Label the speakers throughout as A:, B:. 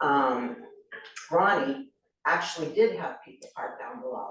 A: um, Ronnie actually did have people park down below.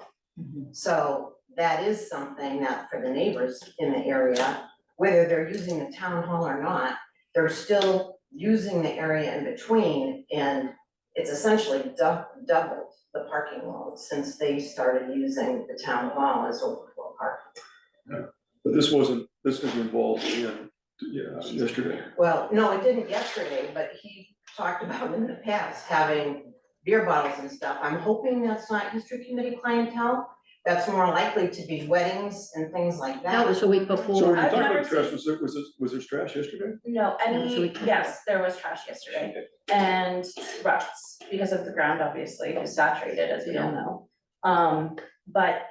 A: So that is something that for the neighbors in the area, whether they're using the town hall or not, they're still using the area in between and it's essentially dou- doubled the parking load since they started using the town hall as overflow parking.
B: But this wasn't, this isn't involved in, yeah, yesterday.
A: Well, no, it didn't yesterday, but he talked about in the past having beer bottles and stuff. I'm hoping that's not history committee clientele. That's more likely to be weddings and things like that.
C: That was the week
B: So when
C: before.
B: you
D: I've
B: talk about
D: never
B: trash,
D: seen-
B: was there, was there, was there trash yesterday?
D: No,
C: so we
D: any,
C: can't.
D: yes, there was trash yesterday and ruts because of the ground obviously is saturated as we all know. Um, but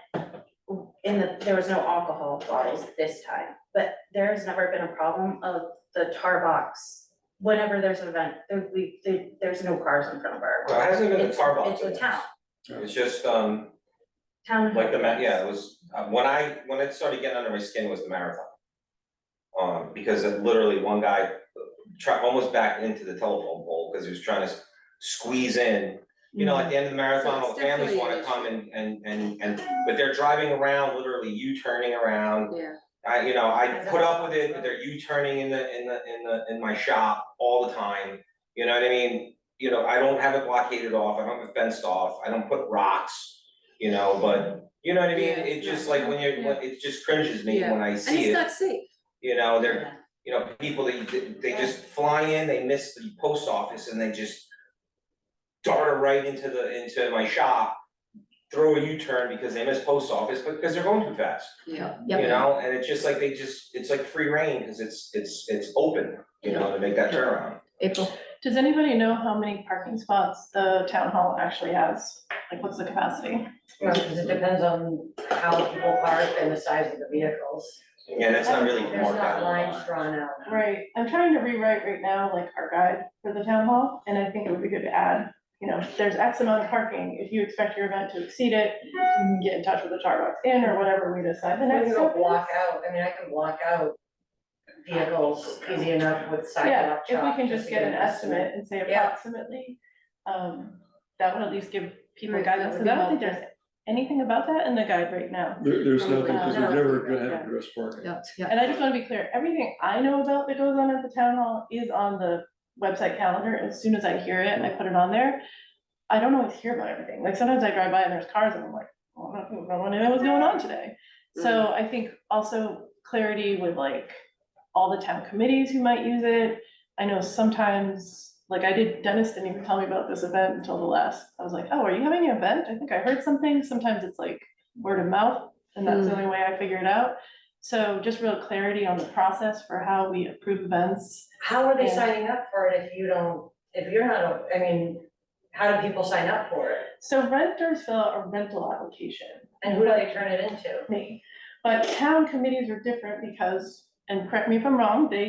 D: in the, there was no alcohol bottles this time, but there has never been a problem of the tar box. Whenever there's an event, there we, there, there's no cars in front of our.
E: Well, it hasn't been a
D: It's-
E: tar box
D: It's a
E: event.
D: town,
E: It's just, um,
D: town.
E: like the, ma- yeah, it was, uh, when I, when it started getting under my skin was the marathon. Um, because it literally one guy tried, almost backed into the telephone pole, cause he was trying to s- squeeze in. You know, at the end of the marathon, all the families wanna come and, and, and, and, but they're driving around, literally U-turning around.
F: Yeah.
E: I, you know, I put up with it, but they're U-turning in the, in the, in the, in my shop all the time, you know what I mean? You know, I don't have it blockaded off, I don't have it fenced off, I don't put rocks, you know, but, you know what I mean?
F: Yeah,
E: It
F: it's
E: just
F: not-
E: like when you're, when- it just cringes me
F: Yeah.
E: when I
F: And
E: see
F: it's
E: it,
F: not safe.
E: you know, they're,
D: Yeah.
E: you know, people, they, they just fly in, they miss the post office and they just dart right into the, into my shop, throw a U-turn because they miss post office, but because they're going too fast.
F: Yeah.
C: Yep.
E: You know, and it's just like they just, it's like free reign, cause it's, it's, it's open, you know, to make that turnaround.
C: April,
G: Does anybody know how many parking spots the town hall actually has? Like, what's the capacity?
H: No, because it depends on how people park and the size of the vehicles.
E: Yeah, that's not really
H: There's
E: marked
H: not
E: out.
H: lines drawn out.
G: Right, I'm trying to rewrite right now, like, our guide for the town hall, and I think it would be good to add, you know, there's X amount of parking, if you expect your event to exceed it, you can get in touch with the Charbox Inn or whatever we decide the
H: We
G: next
H: can go
G: step is.
H: block out, I mean, I can block out vehicles easy enough with
G: Yeah,
H: sidewalk
G: if we
H: chalk,
G: can just get an estimate and say
H: Yeah.
G: approximately, um, that would at least give people
F: Right,
G: guidance, because
F: that would
G: I don't think
F: help.
G: there's anything about that in the guide right now.
B: There, there's nothing,
F: Probably
B: because
G: not.
B: they're never gonna
G: Yeah.
B: have addressed parking.
C: yeah, yeah.
G: And I just wanna be clear, everything I know about that goes on at the town hall is on the website calendar, as soon as I hear it, I put it on there. I don't always hear about everything, like sometimes I drive by and there's cars and I'm like, oh, I don't know what was going on today. So I think also clarity with like all the town committees who might use it. I know sometimes, like I did, Dennis didn't even tell me about this event until the last, I was like, oh, are you having an event? I think I heard something, sometimes it's like word of mouth, and that's the only way I figure it out. So just real clarity on the process for how we approve events.
H: How are they
G: Yeah.
H: signing up for it if you don't, if you're not, a- I mean, how do people sign up for it?
G: So renters fill out a rental application,
H: And who do they turn it into?
G: me, but town committees are different because, and correct me if I'm wrong, they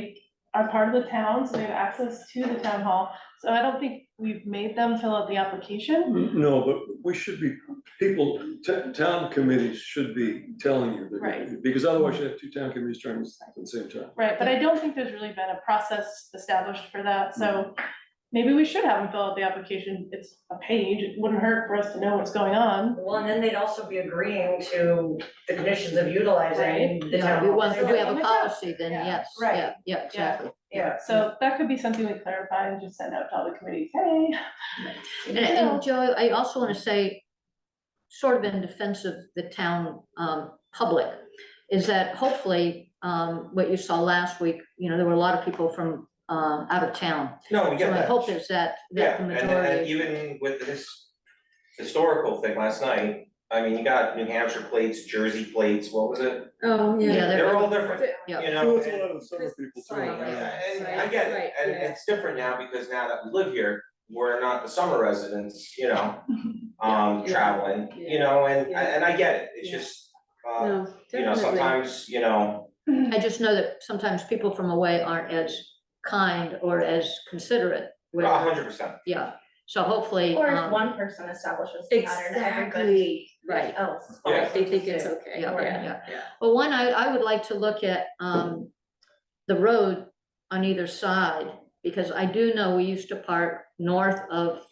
G: are part of the town, so they have access to the town hall. So I don't think we've made them fill out the application.
B: No, but we should be, people, t- town committees should be telling you. they're gonna- Because otherwise you have two town committees trying this at the same time.
G: Right, but I don't think there's really been a process established for that, so maybe we should have them fill out the application. It's a page, it wouldn't hurt for us to know what's going on.
H: Well, and then they'd also be agreeing to the conditions of utilizing the
C: Yeah,
H: town.
C: we
H: hall
C: want, if we have
G: Oh
C: a
G: my God.
C: policy, then
G: Yeah,
C: yes,
H: right.
C: yeah, yeah, exactly.
H: Yeah.
G: So that could be something we clarify and just send out to all the committees, hey.
C: And, and Joey, I also wanna say, sort of in defense of the town, um, public, is that hopefully, um, what you saw last week, you know, there were a lot of people from, um, out of town.
E: No, we
C: So
E: get
C: my
E: that.
C: hope is that, that
E: Yeah,
C: the
E: and, and
C: majority,
E: even with this historical thing last night, I mean, you got New Hampshire plates, Jersey plates, what was it?
F: Oh,
C: yeah, they're.
E: They're all different, you
C: Yeah.
E: know?
B: Well, it's a
E: and-
B: lot of the summer people too.
F: Right,
B: yeah.
E: And
F: Right,
E: I get it,
F: right,
E: and
F: yeah.
E: it's different now because now that we live here, we're not the summer residents, you know, um,
F: Yeah.
E: traveling, you
F: Yeah.
E: know, and,
F: Yeah.
E: and I get it, it's
F: Yeah.
E: just, uh,
F: No,
E: you know,
F: definitely.
E: sometimes, you know,
C: I just know that sometimes people from away aren't as kind or as considerate.
E: a
C: with-
E: hundred percent.
C: Yeah, so hopefully.
D: Or if
C: um,
D: one person establishes the pattern, everybody
F: Exactly, right.
D: else.
E: Yeah.
D: follows
F: They
D: the
F: think it's
D: suit.
F: okay,
C: Yeah,
F: yeah.
C: yeah. Well, one, I, I would like to look at, um, the road on either side, because I do know we used to park north of